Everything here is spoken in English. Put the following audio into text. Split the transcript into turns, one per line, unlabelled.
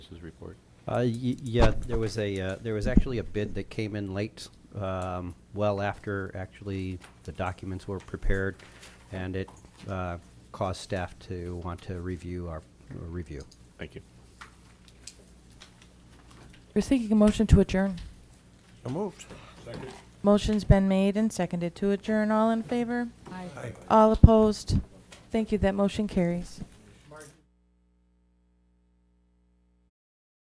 Services report.
Uh, y- yeah, there was a, uh, there was actually a bid that came in late, um, well after actually the documents were prepared, and it, uh, caused staff to want to review our, or review.
Thank you.
We're seeking a motion to adjourn.
So moved.
Motion's been made and seconded to adjourn. All in favor? All opposed? Thank you. That motion carries.